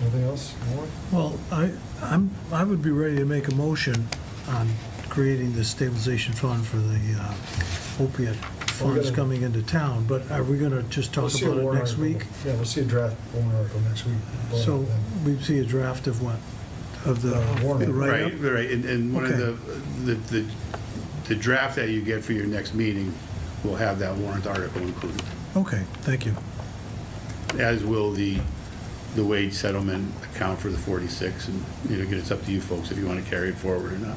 Anything else more? Well, I, I'm, I would be ready to make a motion on creating the stabilization fund for the uh, opiate We're funds gonna- coming into town, but are we gonna just We'll talk see a about it warrant next article. week? Yeah, we'll see a draft warrant article next week. um, Vote on So it then. we see a draft of what, of the Uh, warrant. the Right, write-up? right, and, and one of Okay. the, the- the, the draft that you get for your next meeting will have that warrant article included, Okay, thank you. as will the, the wage settlement account for the 46, and, you know, again, it's up to you folks if you want to carry it forward or not.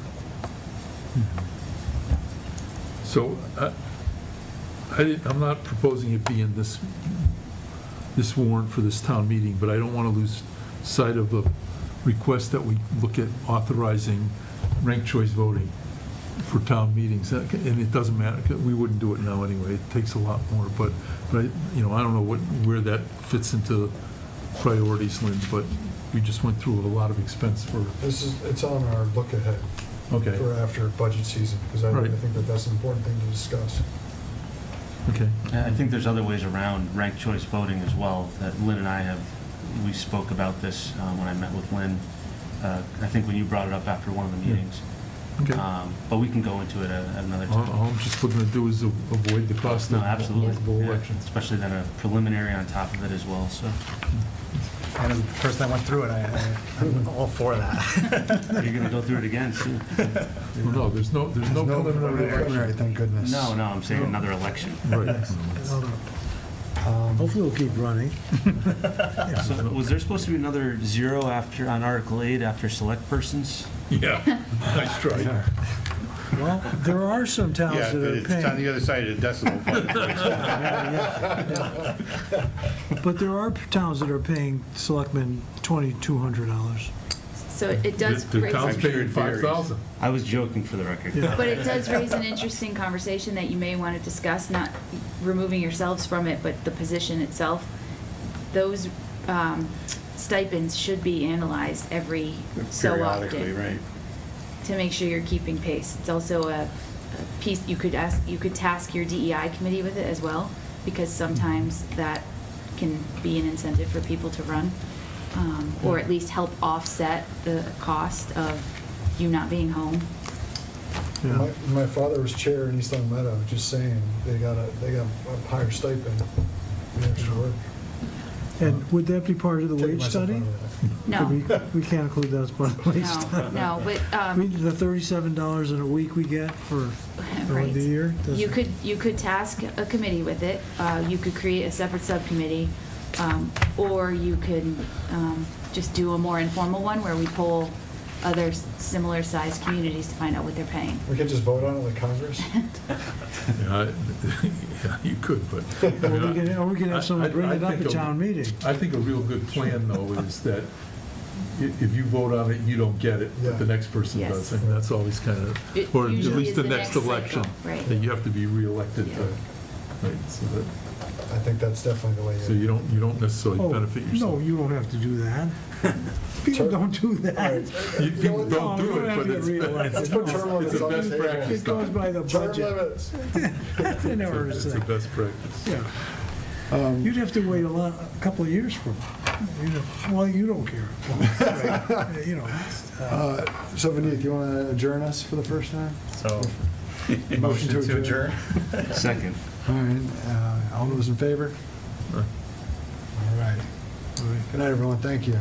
So I, I didn't- I'm not proposing it be in this, this warrant for this town meeting, but I don't want to lose sight of the request that we look at authorizing ranked choice voting for town meetings. That- And it doesn't matter, 'cause we wouldn't do it now anyway. It takes a lot more, but, but, I- you know, I don't know what, where that fits into priorities, Lynn, but we just went through a lot of expense for, This is, it's on our look ahead okay, for after budget season, because I I Right. think that that's an important thing to discuss. okay. I I think there's other ways around ranked choice voting as well, that Lynn and I have, we spoke about this uh, when I met with Lynn. Uh, I think when you brought it up after one of the Yeah. meetings. Okay. Um, But we can go into it at at another All time. all I'm just looking to do is a- avoid the cost No, of absolutely. multiple Yeah, elections. Especially then a preliminary on top of it as well, so. And as the person that went through it, I, I- I'm all for that. You're going to go through it again soon. Well, No, there's no, there's no preliminary. preliminary, thank goodness. No, no, I'm saying another election. Right. Um, Hopefully it'll keep running. So was there supposed to be another zero after, on Article 8 after select persons? Yeah, nice try. Well, there are some Yeah, towns but that are it's on the paying, other side of the decimal point. but there are towns that are paying selectmen $2,200. So it does The raise, town's I'm sure it paying varies. 5,000. I was joking for the record. Yeah. but it does raise an interesting conversation that you may want to discuss, not removing yourselves from it, but the position itself. Those um, stipends should be analyzed every so Periodically, often right. to make sure you're keeping pace. It's also a a piece, you could ask, you could task your DEI committee with it as well, because sometimes that can be an incentive for people to run, um, or at least help offset the cost of you not being home. My, my father was chair in East Long Meadow, just saying, they got a, they got a higher stipend. The extra work. And would that be part of the Take wage myself study? out of that. No, We no, we can't include that as part of the wage study. no, but, I mean, um, the thirty-seven dollars in a week we get for, for right. the year? does- You could, you could task a committee with it, uh, you could create a separate subcommittee, um, or you could, um, just do a more informal one where we poll other s- similar-sized communities to find out what they're paying. We could just vote on it like Congress? Yeah, I- yeah, You could, but. Or we could, or we could have someone bring it up at town meeting. I think a real good plan, though, is that i- if you vote on it, you don't get it, but the Yeah. next person Yes. does. And that's always kind It of, or at usually least is the the next next election. cycle, right. That you have to be reelected Yeah. to, right, so that, I think that's definitely the way. so you don't, you don't necessarily Oh, benefit No, yourself. you don't have to do that. People don't do All that. right, You- People No, don't you do don't it, have but to get it's, reelected. it's Let's put term limits it's a on best the table. practice. It goes by the Term budget. limits. They never It's a- Um, it's a understand. best practice. Yeah. You'd have to wait a lot, a couple of years for, you'd have- well, you don't care. Right, You know, it's, uh, Uh, So Vineet, you want to adjourn us for the first time? So, Motion to adjourn. Second. All right, uh, all those in favor? Aye. All right. Good night, everyone, thank you.